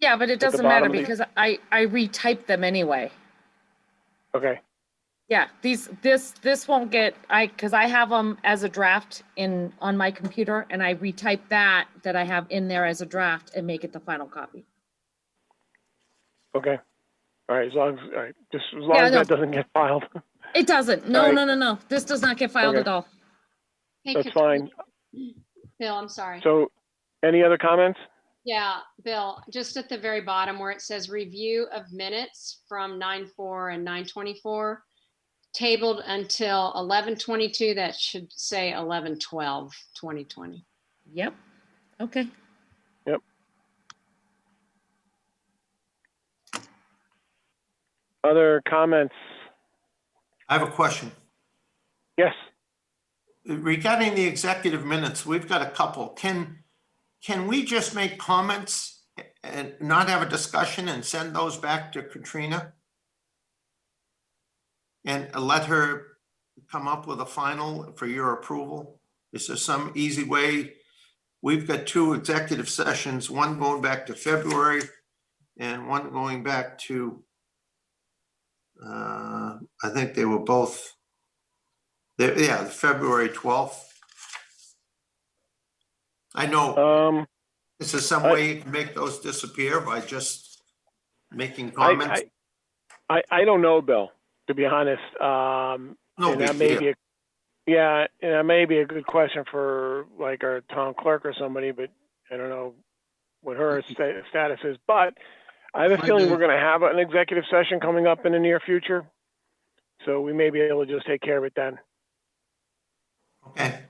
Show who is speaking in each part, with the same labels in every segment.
Speaker 1: Yeah, but it
Speaker 2: the
Speaker 1: doesn't matter
Speaker 2: bottom of the-
Speaker 1: because I, I retyped them anyway.
Speaker 2: Okay,
Speaker 1: Yeah, these, this, this won't get, I, because I have them as a draft in, on my computer and I retype that, that I have in there as a draft and make it the final copy.
Speaker 2: okay. All right, as long as, all right, just as long
Speaker 1: Yeah,
Speaker 2: as
Speaker 1: no.
Speaker 2: that doesn't get filed,
Speaker 1: It doesn't. No,
Speaker 2: Alright.
Speaker 1: no, no, no. This does not get filed
Speaker 2: Okay.
Speaker 1: at all.
Speaker 3: Hey,
Speaker 2: that's
Speaker 3: Ca-
Speaker 2: fine.
Speaker 3: Bill, I'm sorry.
Speaker 2: So, any other comments?
Speaker 3: Yeah, Bill, just at the very bottom where it says review of minutes from nine four and nine twenty-four, tabled until eleven twenty-two, that should say eleven twelve, twenty twenty.
Speaker 1: Yep. Okay.
Speaker 2: Other comments?
Speaker 4: I have a question.
Speaker 2: Yes,
Speaker 4: Regarding the executive minutes, we've got a couple. Can, can we just make comments and not have a discussion and send those back to Katrina? And let her come up with a final for your approval? Is there some easy way? We've got two executive sessions, one going back to February and one going back to, uh, I think they were both the- Yeah, the February 12th. I know,
Speaker 2: um,
Speaker 4: is there some
Speaker 2: I-
Speaker 4: way you can make those disappear by just making
Speaker 2: I,
Speaker 4: comments?
Speaker 2: I, I, I don't know, Bill, to be honest. Um,
Speaker 4: No
Speaker 2: and that
Speaker 4: big
Speaker 2: may be,
Speaker 4: deal.
Speaker 2: a, yeah, and that may be a good question for like our town clerk or somebody, but I don't know what her
Speaker 4: Mm-hmm.
Speaker 2: sta- status is. But I have a
Speaker 4: Might
Speaker 2: feeling
Speaker 4: be.
Speaker 2: we're going to have an executive session coming up in the near future, so we may be able to just take care of it then.
Speaker 4: Okay.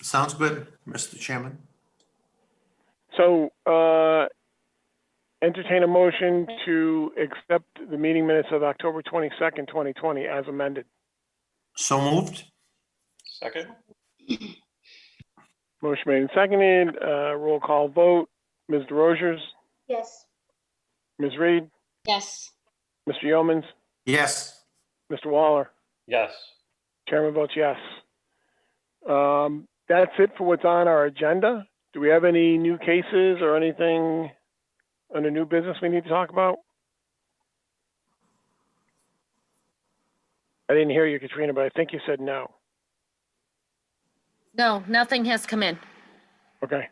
Speaker 4: Sounds good, Mr. Chairman.
Speaker 2: So, uh, entertain a motion to accept the meeting minutes of October 22nd, 2020 as amended.
Speaker 4: So moved?
Speaker 5: Second?
Speaker 2: Motion made and seconded, uh, roll call vote. Ms. DeRozier's,
Speaker 6: Yes.
Speaker 2: Ms. Reed,
Speaker 3: Yes.
Speaker 2: Mr. Yeomans,
Speaker 4: Yes.
Speaker 2: Mr. Waller.
Speaker 5: Yes.
Speaker 2: Chairman votes yes. Um, that's it for what's on our agenda. Do we have any new cases or anything under new business we need to talk about? I didn't hear you, Katrina, but I think you said no.
Speaker 1: No, nothing has come in.
Speaker 2: Okay.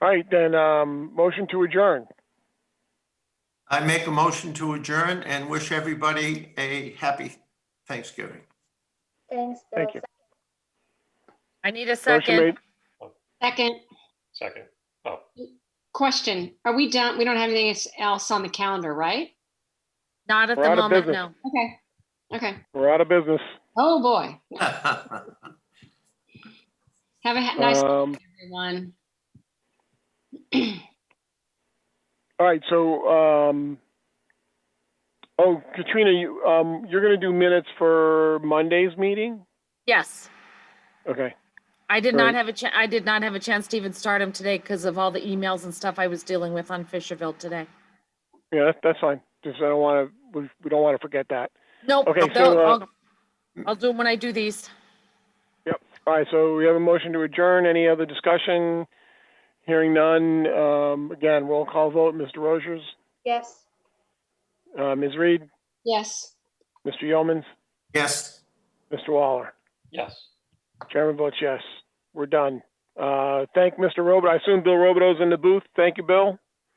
Speaker 2: All right, then, um, motion to adjourn.
Speaker 4: I make a motion to adjourn and wish everybody a happy Thanksgiving.
Speaker 6: Thanks, Bill.
Speaker 2: Thank you.
Speaker 1: I need a
Speaker 2: Motion
Speaker 1: second.
Speaker 2: made-
Speaker 3: Second,
Speaker 5: Second. Oh,
Speaker 3: question, are we done? We don't have anything else on the calendar, right?
Speaker 1: Not at
Speaker 2: We're
Speaker 1: the
Speaker 2: out of
Speaker 1: moment,
Speaker 2: business.
Speaker 1: no.
Speaker 3: Okay, okay.
Speaker 2: We're out of business.
Speaker 3: Oh, boy. Have a ha- nice,
Speaker 2: Um,
Speaker 3: everyone.
Speaker 2: all right, so, um, oh, Katrina, you, um, you're gonna do minutes for Monday's meeting?
Speaker 1: Yes.
Speaker 2: Okay.
Speaker 1: I did not
Speaker 2: Right.
Speaker 1: have a chance, I did not have a chance to even start them today because of all the emails and stuff I was dealing with on Fisherville today.
Speaker 2: Yeah, that- that's fine. Just I don't want to, we, we don't want to forget that.
Speaker 1: Nope,
Speaker 2: Okay,
Speaker 1: they'll-
Speaker 2: so, uh,
Speaker 1: I'll, I'll do them when I do these.
Speaker 2: All right, so we have a motion to adjourn. Any other discussion? Hearing none. Um, again, roll call vote. Mr. Rogers,
Speaker 6: Yes.
Speaker 2: uh, Ms. Reed,
Speaker 3: Yes.
Speaker 2: Mr. Yeomans,
Speaker 4: Yes.
Speaker 2: Mr. Waller.
Speaker 5: yes.
Speaker 2: Chairman votes yes. We're done. Uh, thank Mr. Robert. I assume Bill Robidoux in the booth. Thank you, Bill.